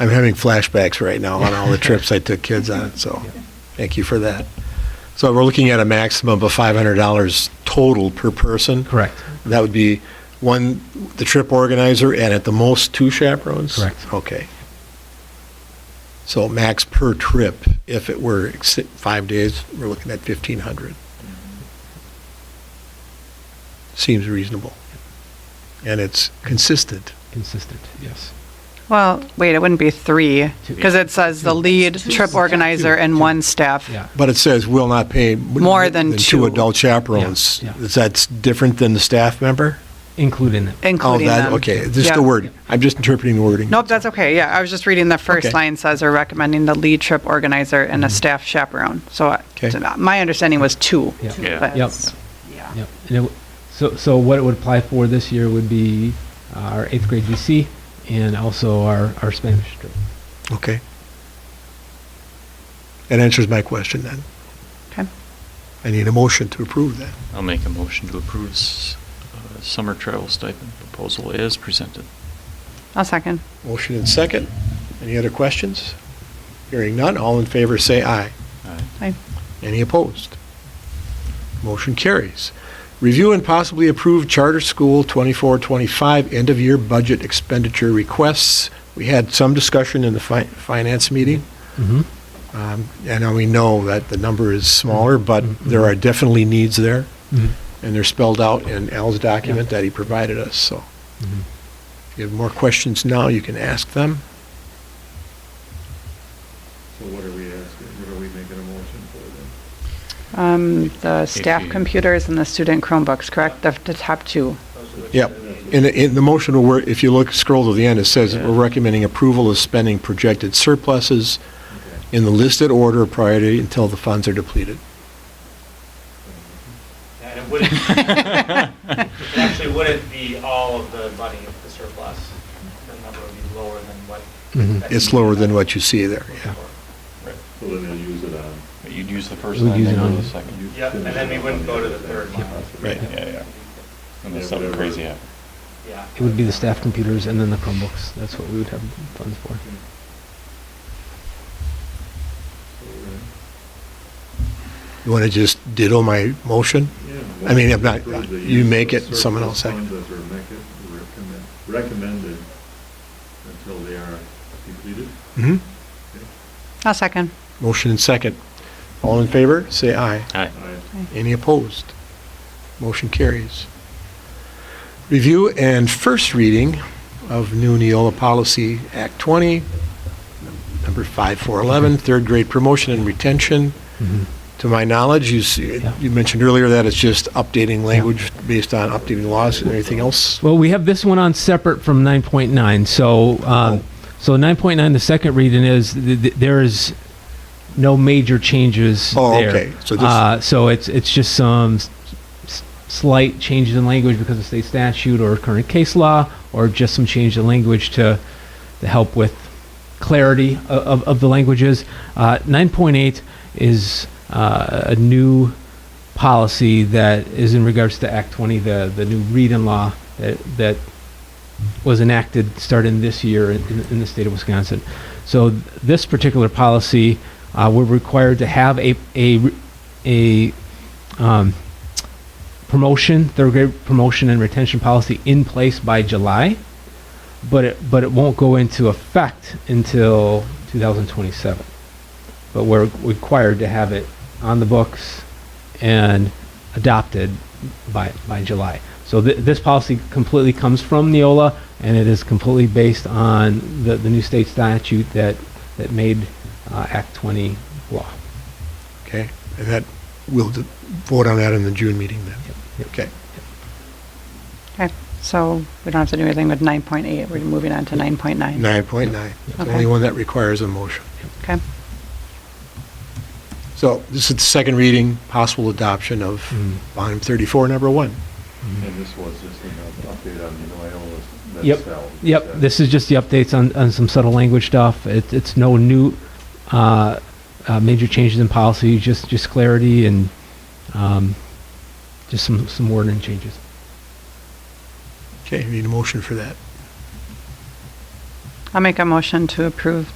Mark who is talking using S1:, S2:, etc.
S1: I'm having flashbacks right now on all the trips I took kids on, so thank you for that. So we're looking at a maximum of $500 total per person.
S2: Correct.
S1: That would be one, the trip organizer, and at the most, two chaperones?
S2: Correct.
S1: Okay. So max per trip, if it were ex- five days, we're looking at 1,500. Seems reasonable. And it's consistent.
S2: Consistent, yes.
S3: Well, wait, it wouldn't be three,
S2: Two.
S3: because it says the lead trip organizer and one staff.
S2: Yeah.
S1: But it says will not pay.
S3: More than two.
S1: adult chaperones.
S2: Yeah, yeah.
S1: Is that different than the staff member?
S2: Include in it.
S1: Oh,
S3: Including
S1: that
S3: them.
S1: Okay, just
S3: Yeah.
S1: the word. I'm just interpreting the wording.
S3: Nope, that's okay, yeah, I was just reading the
S1: Okay. Mm-hmm.
S3: first line says they're recommending the lead trip organizer and a staff chaperone, so I-
S1: Okay.
S3: so my understanding was two.
S2: Yeah.
S4: Yeah.
S3: but-
S2: Yep. Yep. And it, w- so, so what it would apply for this year would be our eighth grade VC and also our, our Spanish trip.
S1: Okay. That answers my question then.
S3: Okay.
S1: I need a motion to approve that.
S4: I'll make a motion to approve s- uh, summer travel stipend proposal as presented.
S3: I'll second.
S1: Motion and second. Any other questions? Hearing none, all in favor say aye.
S4: Aye.
S3: Aye.
S1: Any opposed? Motion carries. Review and possibly approve charter school 24-25 end-of-year budget expenditure requests. We had some discussion in the fi- finance meeting,
S2: Mm-hmm.
S1: um, and now we know that the number is smaller, but there are definitely needs there,
S2: Mm-hmm.
S1: and they're spelled out in Al's document that he provided us, so.
S2: Mm-hmm.
S1: If you have more questions now, you can ask them.
S5: So what are we asking, what are we making a motion for then?
S3: Um, The staff
S4: you-
S3: computers and the student Chromebooks, correct? The the top two.
S1: Yep. In, the- in the motion, will work- if you look, scroll to the end, it says that we're recommending approval of spending projected surpluses in the listed order of priority until the funds are depleted.
S6: And it wouldn't, it actually wouldn't be all of the money of the surplus. The number would be lower than what.
S2: Mhm.
S1: It's lower than what you see there, yeah.
S4: Right.
S5: So then they'll use it on.
S4: But You'd use the first
S2: We'd
S4: line,
S2: use
S4: then
S2: it
S4: go to
S2: on-
S4: the second.
S6: Yep, and then we wouldn't go to the third line.
S1: Right.
S4: Yeah, yeah. Unless
S5: Yeah,
S4: something
S5: whatever.
S4: crazy happens.
S6: Yeah.
S2: It would be the staff computers and then the Chromebooks. That's what we would have funds for.
S1: You want to just ditto my motion?
S5: Yeah.
S1: I mean, if not,
S5: Approve the
S1: you
S5: use
S1: make
S5: of
S1: it, someone else
S5: surplus
S1: second.
S5: funds as are mec- recommend- Recommended until they are depleted.
S1: hmm
S3: I'll second.
S1: Motion and second. All in favor, say aye.
S4: Aye.
S5: I-
S1: Any opposed? Motion carries. Review and first reading of new Neola Policy Act 20, number 5411, third grade promotion and retention.
S2: Mm-hmm.
S1: To my knowledge, you, see-
S2: Yeah.
S1: you mentioned earlier that it's just updating language based on updating laws and everything else.
S2: Well, we have this one on separate from 9.9. So, um, so 9.9, the second reading is th- th- there is no major changes
S1: Oh,
S2: there.
S1: okay. So this-
S2: uh, so it's it's just some s- s- slight changes in language because of state statute or current case law, or just some change in language to to help with clarity o- of, of the languages. Uh, 9.8 is uh, a new policy that is in regards to Act 20, the, the new read-in law that, that was enacted starting this year in, in- in the state of Wisconsin. So th- this particular policy, uh, we're required to have a, a, re- a um, promotion, third grade promotion and retention policy in place by July, but it, but it won't go into effect until 2027. But we're required to have it on the books and adopted by, by July. So th- this policy completely comes from Neola, and it is completely based on the, the new state statute that, that made uh, Act 20 law.
S1: Okay? And that, we'll d- vote on that in the June meeting then.
S2: Yep.
S1: Okay.
S3: Okay, so we don't have to do anything with 9.8, we're moving on to 9.9.
S1: 9.9, It's the
S3: Okay.
S1: only one that requires a motion.
S3: Okay,
S1: So this is the second reading, possible adoption of
S2: Mm.
S1: volume 34, number one.
S5: And this was just an update on the oil that's.
S2: Mm-hmm. Yep, yep. This is just the updates on, on some subtle language stuff. It, it's no new uh, uh, major changes in policy, just, just clarity and um, just some, some wording changes.
S1: Okay, we need a motion for that.
S3: I'll make a motion to approve